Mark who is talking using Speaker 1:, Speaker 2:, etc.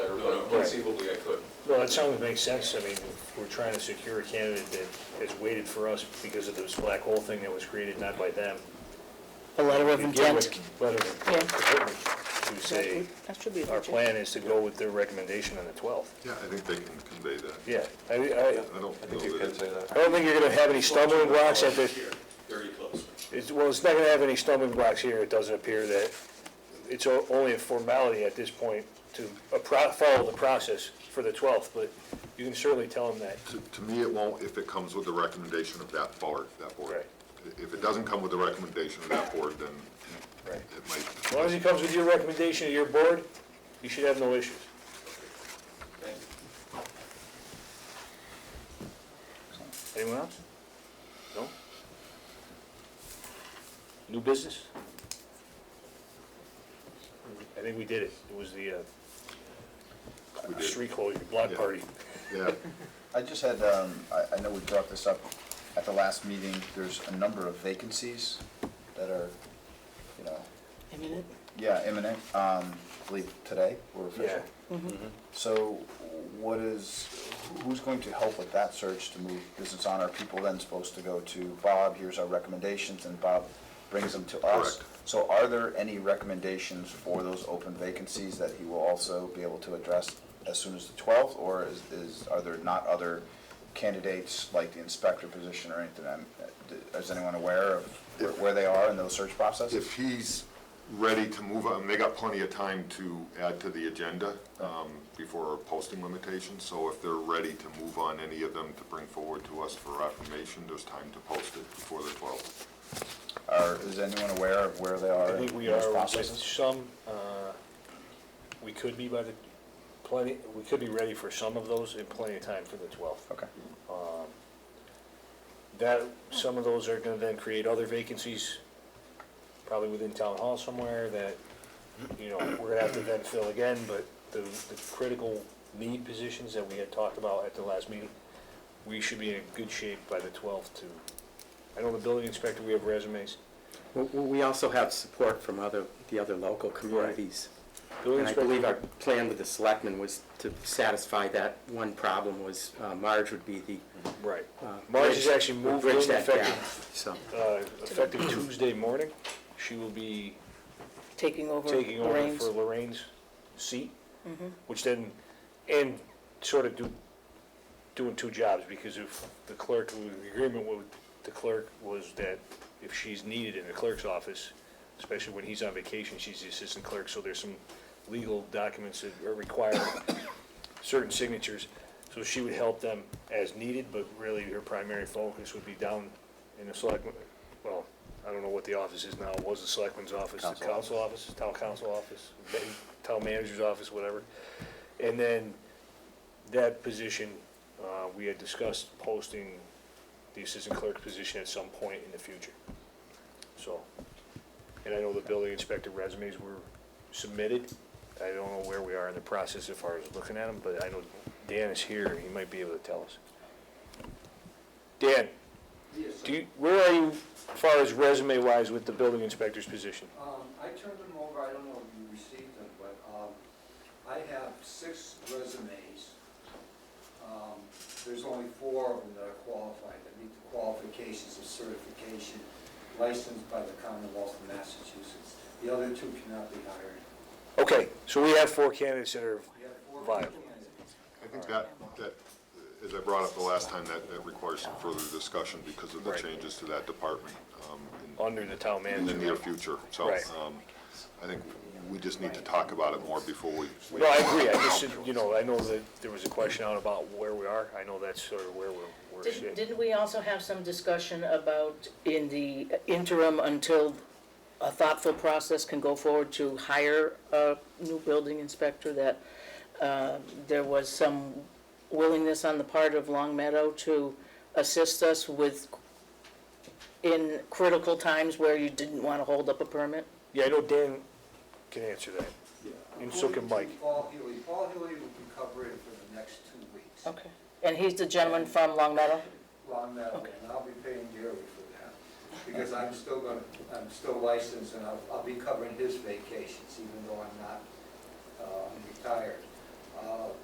Speaker 1: conceivably I could.
Speaker 2: Well, that sounds, makes sense. I mean, we're trying to secure a candidate that has waited for us because of this black hole thing that was created not by them.
Speaker 3: A letter of
Speaker 2: If they're
Speaker 3: intent.
Speaker 2: with- Letter of
Speaker 3: Yeah.
Speaker 2: commitment to say,
Speaker 3: That should be.
Speaker 2: our plan is to go with their recommendation on the 12th.
Speaker 4: Yeah, I think they can convey that.
Speaker 2: Yeah, I, I,
Speaker 4: I don't know that, it-
Speaker 2: I don't think you're gonna have any stumbling blocks at the,
Speaker 1: Here, Very close.
Speaker 2: it's, well, it's not gonna have any stumbling blocks here. It doesn't appear that, it's o- only a formality at this point to a pro- follow the process for the 12th, but you can certainly tell them that.
Speaker 4: to- to me, it won't if it comes with the recommendation of that board, that board.
Speaker 2: Right.
Speaker 4: If it doesn't come with the recommendation of that board, then
Speaker 2: Right.
Speaker 4: it
Speaker 2: As long as
Speaker 4: might,
Speaker 2: it comes with your recommendation to your board, you should have no issues.
Speaker 1: Thank you.
Speaker 2: Anyone else? No? New business? I think we did it. It was the,
Speaker 4: We
Speaker 2: uh,
Speaker 4: did.
Speaker 2: street closure, block
Speaker 4: Yeah.
Speaker 2: party.
Speaker 4: yeah.
Speaker 5: I just had, um, I, I know we brought this up at the last meeting, there's a number of vacancies that are, you know,
Speaker 3: Imminent.
Speaker 5: yeah, imminent, um, I believe today or official. So what is, who's going to help with that search to move business on? Are people then supposed to go to Bob, here's our recommendations, and Bob brings them to us?
Speaker 4: Correct.
Speaker 5: So are there any recommendations for those open vacancies that he will also be able to address as soon as the twelfth? Or is, is, are there not other candidates like the inspector position or anything? I'm- Is anyone aware of where- where they are in those search processes?
Speaker 4: If he's ready to move on, they got plenty of time to add to the agenda um, before our posting limitations. So if they're ready to move on any of them to bring forward to us for affirmation, there's time to post it before the 12th.
Speaker 5: Or is anyone aware of where they
Speaker 2: I
Speaker 5: are
Speaker 2: think
Speaker 5: in
Speaker 2: we are
Speaker 5: those
Speaker 2: with
Speaker 5: processes?
Speaker 2: some, uh, we could be by the, plenty, we could be ready for some of those in plenty of time for the 12th.
Speaker 5: Okay,
Speaker 2: That, some of those are gonna then create other vacancies, probably within town hall somewhere that, you know, we're gonna have to then fill again, but the, the critical need positions that we had talked about at the last meeting, we should be in good shape by the twelfth to, I know the building inspector, we have resumes.
Speaker 6: W- w- We also have support from other, the other local communities. And I believe our plan with the selectmen was to satisfy that one problem was uh, Marge would be the.
Speaker 2: Right.
Speaker 6: uh,
Speaker 2: Marge has
Speaker 6: bridge-
Speaker 2: actually moved in
Speaker 6: bridge that gap,
Speaker 2: effective,
Speaker 6: So,
Speaker 2: uh, effective Tuesday morning. She will be
Speaker 3: Taking over
Speaker 2: taking over
Speaker 3: Lorraine's. Mm-hmm.
Speaker 2: for Lorraine's seat, which then, and sort of do, doing two jobs, because if the clerk, the agreement with the clerk was that if she's needed in the clerk's office, especially when he's on vacation, she's the assistant clerk, so there's some legal documents that are required, certain signatures, so she would help them as needed, but really her primary focus would be down in the selectmen, well, I don't know what the office is now, It was the selectman's office, the council office, town council office, ma- town manager's office, whatever. And then that position, uh, we had discussed posting the assistant clerk position at some point in the future. So, and I know the building inspector resumes were submitted. I don't know where we are in the process as far as looking at them, but I know Dan is here, and he might be able to tell us. Dan? Do you, where are you as far as resume-wise with the building inspector's position?
Speaker 7: Um, I turned them over, I don't know if you received them, but, um, I have six resumes. Um, there's only four of them that are qualified, that meet the qualifications of certification licensed by the Commonwealth of Massachusetts. The other two cannot be hired.
Speaker 2: Okay, so we have four candidates that are,
Speaker 7: We have four
Speaker 2: Viable.
Speaker 7: candidates.
Speaker 4: I think that, that, as I brought up the last time, that, that requires some further discussion because of the
Speaker 2: Right.
Speaker 4: changes to that department um, in-
Speaker 2: under the town
Speaker 4: in the
Speaker 2: manager.
Speaker 4: near future. So
Speaker 2: Right.
Speaker 4: um, I think we just need to talk about it more before we. we-
Speaker 2: No, I agree, I just, said, you know, I know that there was a question out about where we are, I know that's sort of where we're, we're
Speaker 3: Didn't
Speaker 2: sitting.
Speaker 3: didn't we also have some discussion about in the interim until a thoughtful process can go forward to hire a new building inspector, that uh, there was some willingness on the part of Long Meadow to assist us with, in critical times where you didn't want to hold up a permit?
Speaker 2: Yeah, I know Dan can answer that, and so can Mike.
Speaker 7: According to Paul Healy, Paul Healy will be covering for the next two weeks.
Speaker 3: Okay. And he's the gentleman from Long Meadow?
Speaker 7: Long Meadow,
Speaker 3: Okay.
Speaker 7: and I'll be paying dearly for that, because I'm still gonna, I'm still licensed, and I'll, I'll be covering his vacations, even though I'm not, um, retired.